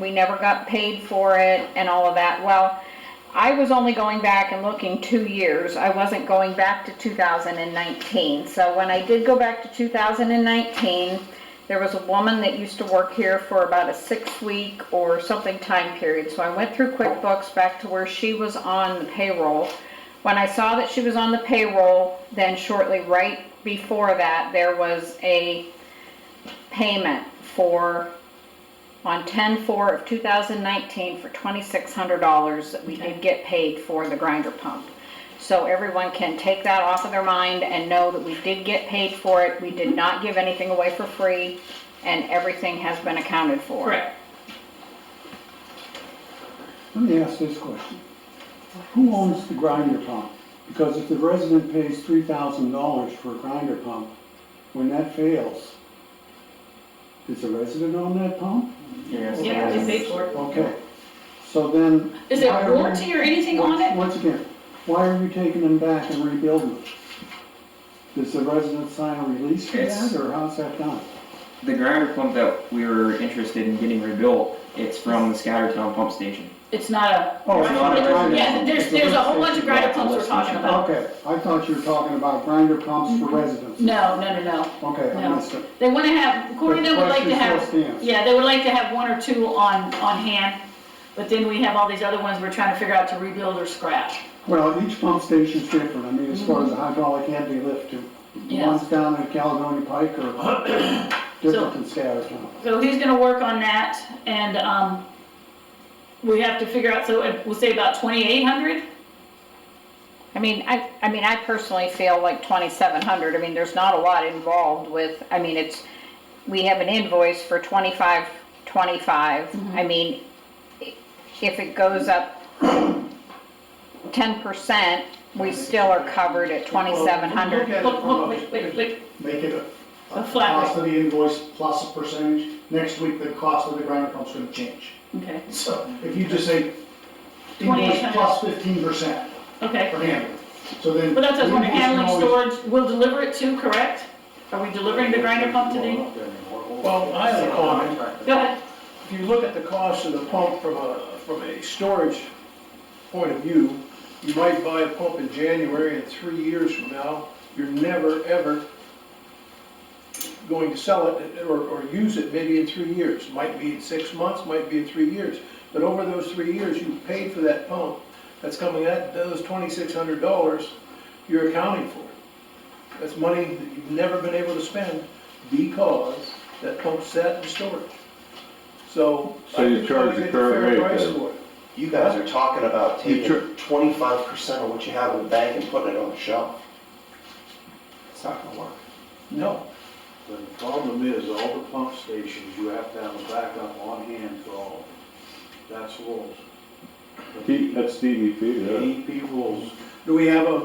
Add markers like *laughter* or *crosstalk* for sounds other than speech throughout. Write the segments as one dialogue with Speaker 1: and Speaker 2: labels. Speaker 1: we never got paid for it and all of that. Well, I was only going back and looking two years. I wasn't going back to 2019. So when I did go back to 2019, there was a woman that used to work here for about a six-week or something time period. So I went through QuickBooks back to where she was on the payroll. When I saw that she was on the payroll, then shortly right before that, there was a payment for, on 10/4 of 2019 for $2,600 that we did get paid for the grinder pump. So everyone can take that off of their mind and know that we did get paid for it, we did not give anything away for free, and everything has been accounted for.
Speaker 2: Correct.
Speaker 3: Let me ask this question. Who owns the grinder pump? Because if the resident pays three thousand dollars for a grinder pump, when that fails, does the resident own that pump?
Speaker 4: Yes.
Speaker 2: Yeah, they paid for it.
Speaker 3: Okay, so then.
Speaker 2: Is there
Speaker 3: why are we-
Speaker 2: warranty or anything on
Speaker 3: Once
Speaker 2: it?
Speaker 3: once again, why are you taking them back and rebuilding them? Does the resident sign a release for
Speaker 4: It's-
Speaker 3: that, or how's that done?
Speaker 4: The grinder pump that we were interested in getting rebuilt, it's from the Scattertown pump station.
Speaker 2: It's not a,
Speaker 3: Oh, it's not a grinder
Speaker 2: yeah,
Speaker 3: pump.
Speaker 2: there's,
Speaker 3: It's a
Speaker 2: there's a whole bunch of
Speaker 3: lift station.
Speaker 2: grinder pumps we're talking about.
Speaker 3: Okay, I thought you were talking about grinder pumps for residents.
Speaker 2: Mm-hmm. No, no, no, no.
Speaker 3: Okay, I
Speaker 2: No.
Speaker 3: missed it.
Speaker 2: They wanna have, Corey, they would like to
Speaker 3: Question still
Speaker 2: have,
Speaker 3: stands.
Speaker 2: yeah, they would like to have one or two on, on hand, but then we have all these other ones we're trying to figure out to rebuild or scrap.
Speaker 3: Well, each pump station's different, I mean, as far as the hydraulic head they lift to. The
Speaker 2: Mm-hmm. Yeah.
Speaker 3: ones down at Caledonia Pike are
Speaker 2: *coughs* So-
Speaker 3: different than Scattertown.
Speaker 2: So he's gonna work on that, and, um, we have to figure out, so it- we'll say about twenty-eight hundred?
Speaker 1: I mean, I, I mean, I personally feel like twenty-seven hundred, I mean, there's not a lot involved with, I mean, it's, we have an invoice for twenty-five, twenty-five,
Speaker 2: Mm-hmm.
Speaker 1: I mean, i- if it goes up ten percent, we still are covered at twenty-seven hundred.
Speaker 5: Well,
Speaker 2: Look, look,
Speaker 5: we'll look at it
Speaker 2: wait, wait,
Speaker 5: from
Speaker 2: wait,
Speaker 5: a- Make it a
Speaker 2: A
Speaker 5: a
Speaker 2: flat rate.
Speaker 5: cost of the invoice plus a percentage. Next week, the cost of the grinder pump's gonna change.
Speaker 2: okay,
Speaker 5: So if you just say invoice
Speaker 2: 2800.
Speaker 5: plus fifteen percent
Speaker 2: okay.
Speaker 5: for handling, so then.
Speaker 2: But that's
Speaker 5: the
Speaker 2: just one
Speaker 5: invoice
Speaker 2: handling,
Speaker 5: can always-
Speaker 2: storage, we'll deliver it too, correct? Are we delivering the grinder pump today?
Speaker 6: Well, I have a comment.
Speaker 2: Go ahead.
Speaker 6: If you look at the cost of the pump from a, from a storage point of view, you might buy a pump in January and three years from now, you're never, ever going to sell it or, or use it maybe in three years. Might be in six months, might be in three years. But over those three years, you paid for that pump that's coming at those twenty-six hundred dollars, you're accounting for it. That's money that you've never been able to spend because that pump sat in storage. So.
Speaker 7: So you
Speaker 6: I think
Speaker 7: charge
Speaker 6: you
Speaker 7: the
Speaker 6: get fair
Speaker 7: current rate
Speaker 6: price
Speaker 7: then?
Speaker 6: for it.
Speaker 8: You guys are talking about
Speaker 7: You
Speaker 8: taking twenty-five percent of what you have in the bank and putting it on the shelf. It's not gonna work.
Speaker 6: No,
Speaker 9: The problem is, all the pump stations, you have to have a backup on hand for all of them. That's rules.
Speaker 7: D- E That's DEP,
Speaker 9: DEP rules,
Speaker 6: do we have a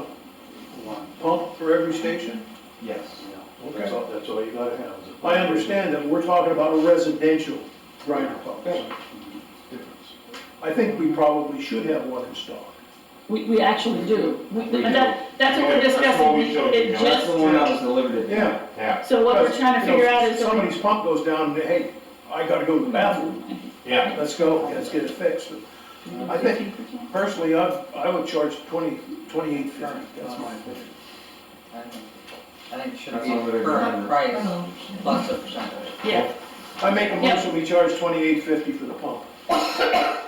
Speaker 9: one,
Speaker 6: pump for every station?
Speaker 4: Yes.
Speaker 9: yeah. That's all, that's all you gotta have is a.
Speaker 6: I understand that we're talking about a residential grinder pump.
Speaker 9: Difference.
Speaker 6: I think we probably should have one in stock.
Speaker 2: We, we actually do. We-
Speaker 7: We
Speaker 2: and that- That's what we're
Speaker 10: Yeah, that's what
Speaker 2: discussing.
Speaker 10: we
Speaker 2: It-
Speaker 10: showed you,
Speaker 2: It
Speaker 10: yeah,
Speaker 4: That's the
Speaker 2: just,
Speaker 4: one that was delivered to.
Speaker 6: Yeah.
Speaker 10: Yeah,
Speaker 2: so what we're trying to figure out is,
Speaker 6: Somebody's pump goes down and, hey, I gotta go to the bathroom,
Speaker 10: yeah.
Speaker 6: let's go, let's get it fixed. I think personally, I, I would charge twenty, twenty-eight fifty, that's my opinion.
Speaker 4: I think it should be current price.
Speaker 2: yeah,
Speaker 6: I make a motion, we charge twenty-eight fifty for the pump.
Speaker 3: I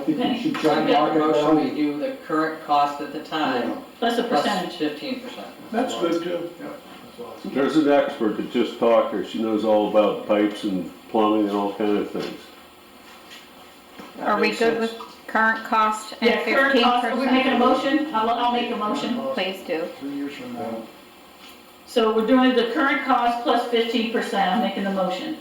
Speaker 3: think you
Speaker 2: Okay.
Speaker 3: should
Speaker 2: I've
Speaker 3: check
Speaker 2: got
Speaker 3: market value.
Speaker 11: do the current cost at the time,
Speaker 2: plus a percentage.
Speaker 11: fifteen percent.
Speaker 6: That's good too.
Speaker 7: yeah. There's an expert that just talked here, she knows all about pipes and plumbing and all kind of things.
Speaker 6: That
Speaker 1: Are we
Speaker 6: makes
Speaker 1: good with
Speaker 6: sense.
Speaker 1: current cost and
Speaker 2: Yeah, current
Speaker 1: fifteen
Speaker 2: cost, are we making a
Speaker 1: percent?
Speaker 2: motion? I'll, I'll make a motion.
Speaker 1: Please do.
Speaker 5: Three years from now.
Speaker 2: So we're doing the current cost plus fifteen percent. I'm making the motion.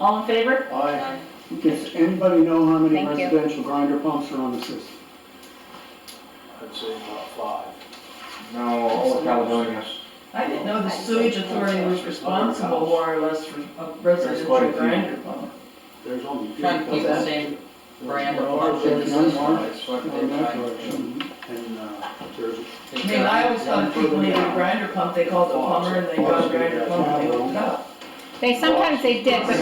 Speaker 2: All in favor?
Speaker 6: Aye.
Speaker 3: Does anybody know how many
Speaker 1: Thank you.
Speaker 3: residential grinder pumps are on the system?
Speaker 9: I'd say about five.
Speaker 4: No, all of Caledonia.
Speaker 11: I didn't know the sewage authority was responsible more or less for a residential
Speaker 4: quite a few.
Speaker 11: grinder pump.
Speaker 9: There's only.
Speaker 11: Trying to keep the same brand of market.
Speaker 9: There's one more.
Speaker 3: On that direction.
Speaker 9: And, uh, there's
Speaker 11: I mean, I always thought people needed a grinder pump, they called the plumber and they got a grinder pump and they hooked up.
Speaker 1: They, sometimes they did, but